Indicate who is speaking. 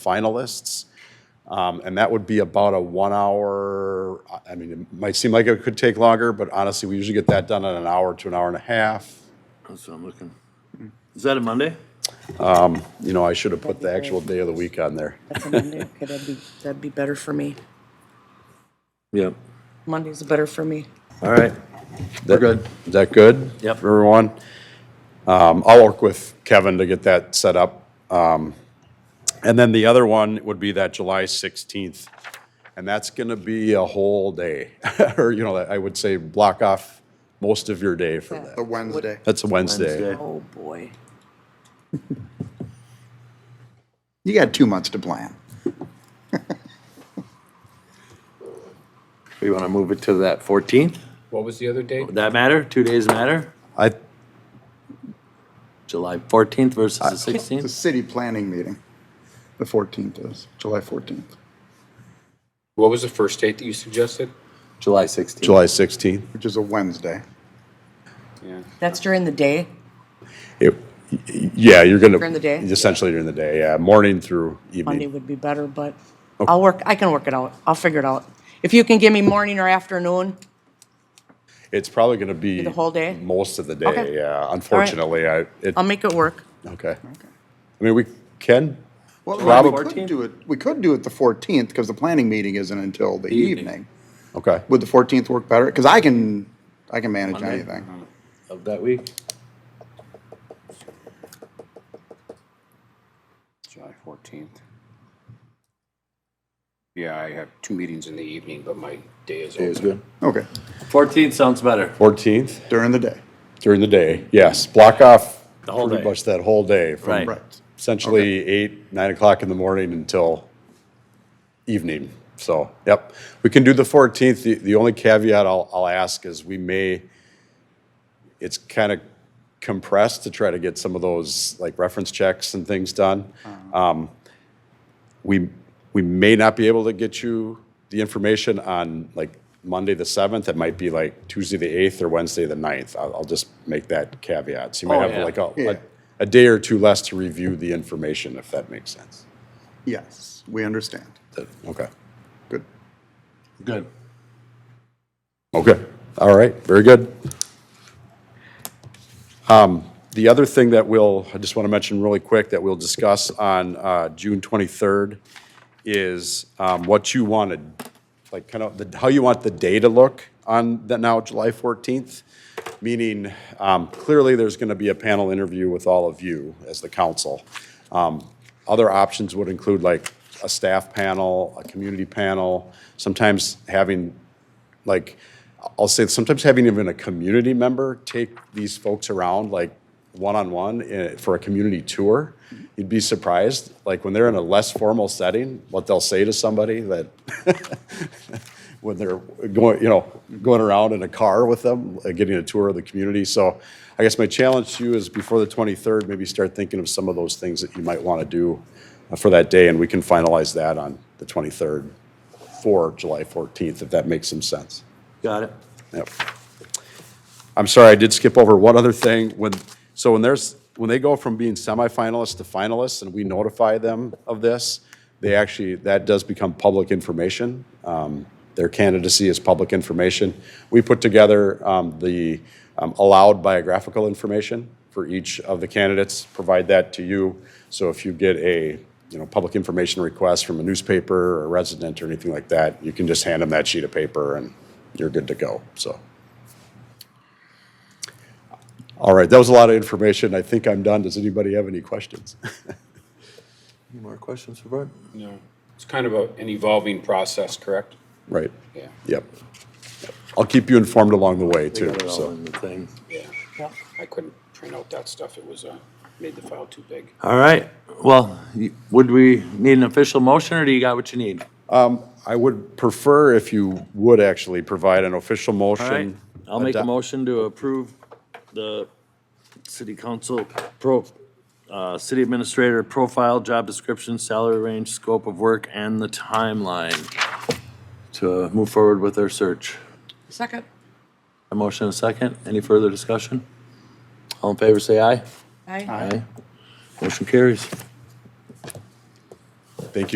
Speaker 1: finalists. Um, And that would be about a one-hour, I mean, it might seem like it could take longer, but honestly, we usually get that done in an hour to an hour and a half.
Speaker 2: That's what I'm looking. Is that a Monday?
Speaker 1: You know, I should have put the actual day of the week on there.
Speaker 3: That's a Monday. Okay, that'd be, that'd be better for me.
Speaker 2: Yep.
Speaker 3: Monday's better for me.
Speaker 2: All right.
Speaker 1: We're good. Is that good?
Speaker 2: Yep.
Speaker 1: For everyone? Um, I'll work with Kevin to get that set up. Um, And then the other one would be that July 16th. And that's going to be a whole day, or, you know, I would say block off most of your day for that.
Speaker 4: The Wednesday.
Speaker 1: That's a Wednesday.
Speaker 2: Wednesday.
Speaker 3: Oh, boy.
Speaker 4: You got two months to plan.
Speaker 2: We want to move it to that fourteenth?
Speaker 5: What was the other date?
Speaker 2: Would that matter? Two days matter?
Speaker 1: I,
Speaker 2: July fourteenth versus the
Speaker 4: It's a
Speaker 2: sixteenth?
Speaker 4: city planning meeting. The 14th is, July 14th.
Speaker 5: What was the first date that you suggested?
Speaker 2: July sixteenth.
Speaker 1: July 16th.
Speaker 4: Which is a Wednesday.
Speaker 3: That's during the day?
Speaker 1: It- y- y- Yeah, you're going to.
Speaker 3: During the day?
Speaker 1: Essentially during the day, yeah, morning through
Speaker 3: Monday
Speaker 1: evening.
Speaker 3: would be better, but I'll work, I can work it out. I'll figure it out. If you can give me morning or afternoon,
Speaker 1: It's probably going to be.
Speaker 3: the whole day?
Speaker 1: Most of the
Speaker 3: Okay. Um,
Speaker 1: day, yeah. Unfortunately, I, it,
Speaker 3: I'll make it work.
Speaker 1: okay. I mean, we can,
Speaker 4: Well,
Speaker 1: Rob-
Speaker 4: we could do it, we could do it the 14th because the planning meeting isn't until the evening.
Speaker 1: okay.
Speaker 4: Would the 14th work better? Because I can, I can manage anything.
Speaker 2: Of that week?
Speaker 5: July 14th. Yeah, I have two meetings in the evening, but my day is open.
Speaker 2: good.
Speaker 4: Okay,
Speaker 2: Fourteenth sounds better.
Speaker 1: 14th
Speaker 4: during the day.
Speaker 1: during the day, yes. Block off
Speaker 2: The whole
Speaker 1: pretty
Speaker 2: day.
Speaker 1: much that whole day
Speaker 2: Right.
Speaker 1: from
Speaker 4: Right.
Speaker 1: essentially eight, nine o'clock in the morning until evening. So, yep, we can do the 14th. The, the only caveat I'll, I'll ask is we may, it's kind of compressed to try to get some of those like reference checks and things done.
Speaker 2: Uh-huh.
Speaker 1: Um, We, we may not be able to get you the information on like Monday, the 7th. It might be like Tuesday, the 8th or Wednesday, the 9th. I'll, I'll just make that caveat. So you
Speaker 2: Oh,
Speaker 1: might have
Speaker 2: yeah.
Speaker 1: like a,
Speaker 4: Yeah.
Speaker 1: a, a day or two less to review the information, if that makes sense.
Speaker 4: Yes, we understand.
Speaker 1: Okay.
Speaker 4: Good.
Speaker 2: Good.
Speaker 1: Okay, all right, very good. Um, The other thing that we'll, I just want to mention really quick, that we'll discuss on uh, June 23rd is um, what you want to, like, kind of, the- how you want the day to look on the now July 14th, meaning um, clearly there's going to be a panel interview with all of you as the council. Um, Other options would include like a staff panel, a community panel, sometimes having like I'll say sometimes having even a community member take these folks around like one-on-one eh, for a community tour, you'd be surprised, like when they're in a less formal setting, what they'll say to somebody that when they're going, you know, going around in a car with them, uh, getting a tour of the community. So I guess my challenge to you is before the 23rd, maybe start thinking of some of those things that you might want to do uh, for that day, and we can finalize that on the 23rd for July 14th, if that makes some sense.
Speaker 2: Got it.
Speaker 1: Yep. I'm sorry, I did skip over one other thing. When, so when there's, when they go from being semifinalists to finalists and we notify them of this, they actually, that does become public information. Um, Their candidacy is public information. We put together um, the um, allowed biographical information for each of the candidates, provide that to you. So if you get a, you know, public information request from a newspaper or a resident or anything like that, you can just hand them that sheet of paper and you're good to go, so. All right, that was a lot of information. I think I'm done. Does anybody have any questions?
Speaker 2: Any more questions for Bart?
Speaker 5: No. It's kind of a- an evolving process, correct?
Speaker 1: Right,
Speaker 5: Yeah.
Speaker 1: yep. I'll keep you informed along the way,
Speaker 2: Got
Speaker 1: too,
Speaker 2: it all
Speaker 1: so.
Speaker 2: in the thing.
Speaker 5: Yeah. I couldn't print out that stuff. It was, uh, made the file too big.
Speaker 2: All right. Well, you- would we need an official motion or do you got what you need?
Speaker 1: I would prefer if you would actually provide an official
Speaker 2: All right.
Speaker 1: motion.
Speaker 2: I'll make a
Speaker 1: Adopt-
Speaker 2: motion to approve the city council pro, uh, city administrator profile, job description, salary range, scope of work, and the timeline to move forward with our search.
Speaker 3: Second.
Speaker 2: A motion and a second. Any further discussion? All in favor, say aye.
Speaker 3: Aye.
Speaker 2: Aye. Motion carries.